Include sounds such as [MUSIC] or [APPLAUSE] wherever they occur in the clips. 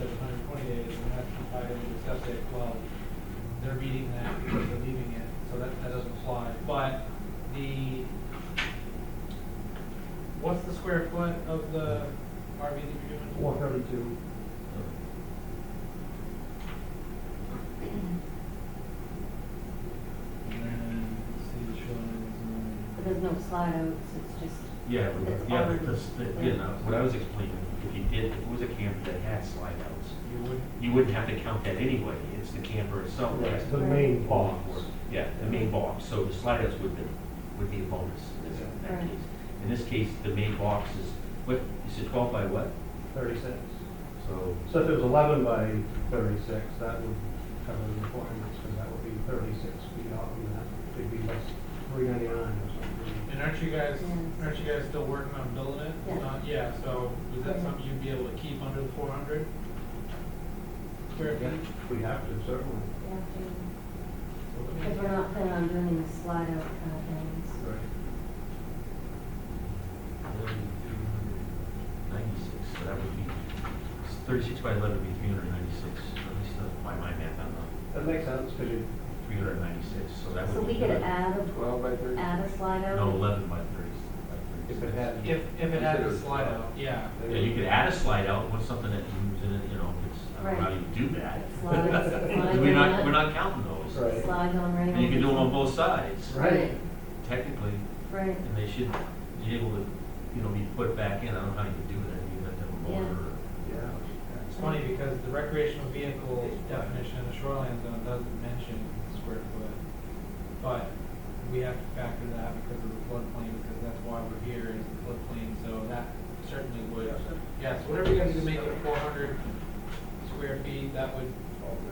it is, and that's probably gonna discuss it, well, they're reading that because they're leaving it, so that, that doesn't apply. But the, what's the square foot of the RV that you're doing? One thirty-two. And then, see the shoulders and But there's no slide outs, it's just, Yeah, but- It's yeah, already- because, the- you know, what I was explaining, if you did, if it was a camper that had slide outs, Mm-hmm. you wouldn't, you wouldn't have to count that anyway, it's the camper itself that has That's to the main box. Yeah, the main box, so the slide outs would be, would be a bonus in this- in that Right. case. In this case, the main box is, what, is it twelve by what? Thirty-six. So, So if it was eleven by thirty-six, that would cover the requirements, because that would be thirty-six feet off, and that could be less, three ninety-nine or something. and aren't you guys, Yes. aren't you guys still working on building it? Yeah. Uh, Yeah, so is that something you'd be able to keep under the four hundred? Square feet? If We have to, certainly. we have to, because we're not planning on doing any slide out kind of things. Right. ninety-six, so that would be, thirty-six by eleven would be three hundred and ninety-six, at least uh, by my math, I'm not, That makes sense, because you, three hundred and ninety-six, so that would So be. we could good. add Twelve by a, thirty? add a slide out. No, eleven by thirty. If it had- If, if it had Consider a it slide slide. out, yeah. Yeah, you could add a slide out, what's something that moves in it, you know, it's, I don't know how Right. you do that. Slides, [LAUGHS] slides We're on not, it. we're not counting those. Right. Slides on rails. And you can do them on both sides, Right, Right. technically, right, and they should be able to, you know, be put back in, I don't know how you do that, you have to have a motor. or- yeah. It's funny because the recreational vehicle definition in the shoreline zone doesn't mention square foot. But we have to factor that because of the floodplain, because that's why we're here is the floodplain, so that certainly would. Yes, whatever you guys do to make it four hundred square feet, that would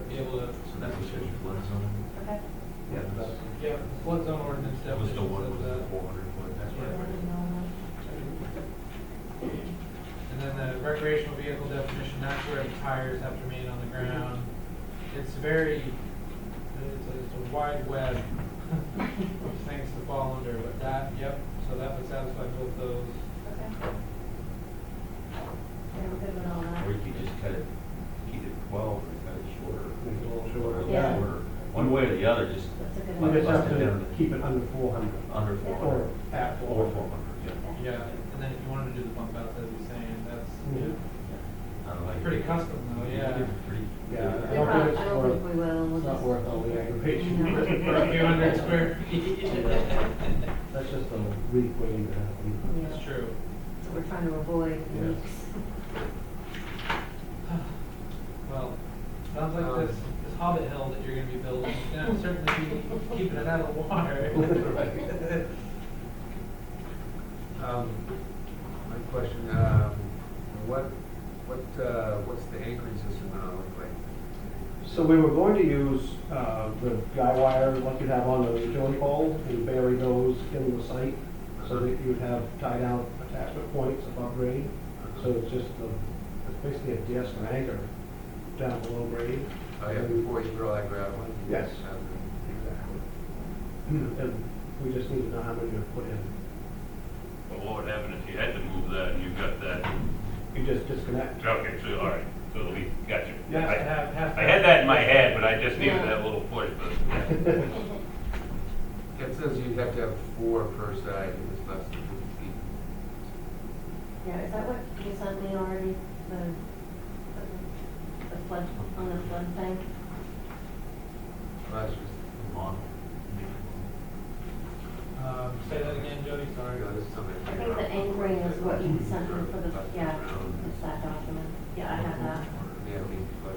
be able to. So that was your flood zone, okay. Yeah, that's, Yeah, flood zone ordinance that was definition the one says with the that. four hundred foot, that's I what I read. don't know. And then the recreational vehicle definition, that's where the tires have to remain on the ground. It's very, it's a, it's a wide web of things to fall under, but that, yep, so that would satisfy both those. Okay. Yeah, we're good with all that. Or you could just cut it, keep it twelve or cut it shorter. make it a little shorter. Yeah. Shorter. One way or the other, just That's a good You one. just have to keep it under four hundred. under four Or hundred. at four. Or four hundred, yeah. Yeah, and then if you wanted to do the bump outs, as you're saying, Yeah. that's I don't like pretty it. custom though, Oh, yeah. Pretty- Yeah. We prob- I don't think we will, we'll It's not just, worth all [LAUGHS] [LAUGHS] the aggravation. No. A few hundred square feet. That's just a weak way to happen. yeah, It's true. so we're trying to avoid Yeah. leaks. Well, sounds like this, this Hobbit hill that you're gonna be building, is gonna certainly be keeping it out of the [LAUGHS] water. Um, My question, um, what, what, uh, what's the anchoring system gonna look like? So we were going to use uh, the guy wire, like you have on the utility pole, and bury those in the site, so that you would have tied out attachment points above grade. So it's just the, it's basically a disc or anchor down below grade. Oh, yeah, before you throw that gravel in? Yes. Okay. Exactly. And we just need to know how many to put in. But what would happen if you had to move that and you got that, You just disconnect. okay, so, all right, so we got you. You have to I have, have to. I [LAUGHS] had that in my head, but I just needed that little push, but, It says you have to have four per side, if it's less than fifty feet. Yeah, is that what you sent me already, the, the- the flood, on the flood thing? Well, that's just, Model. Um, say that again, Jody, I sorry. go, this is something. I think the anchoring is what you sent me for the, yeah, it's that document, yeah, I have that. Yeah, we, but,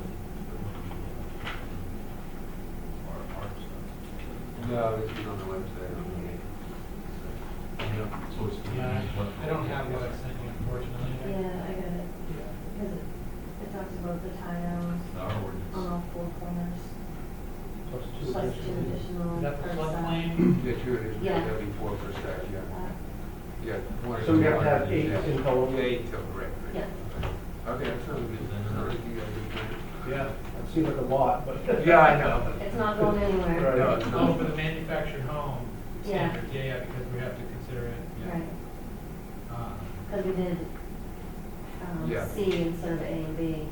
no, this is on the website, okay. Yeah, so it's. Yeah, I don't have what I sent you unfortunately. Yeah, I got it, because it, it talks about the tie-downs Our on ordinance. all four corners, Plus two plus two additional. additional. Is that the per side. floodplain? Yeah, true, it is, Yeah. that'd be four per side, yeah. Uh, Yeah. one So or we have to two. have eight in total. Yeah, Eight total, right, right. Yeah. Okay, that sounds good, then, I think you guys Yeah, it seems like a lot, but. are- Yeah, I know. It's not going anywhere. Right. No, it's Oh, not. for the manufactured home Yeah. standard, yeah, yeah, because we have to consider it, yeah. Right, Uh, because we did, um, Yeah. C instead of A and B.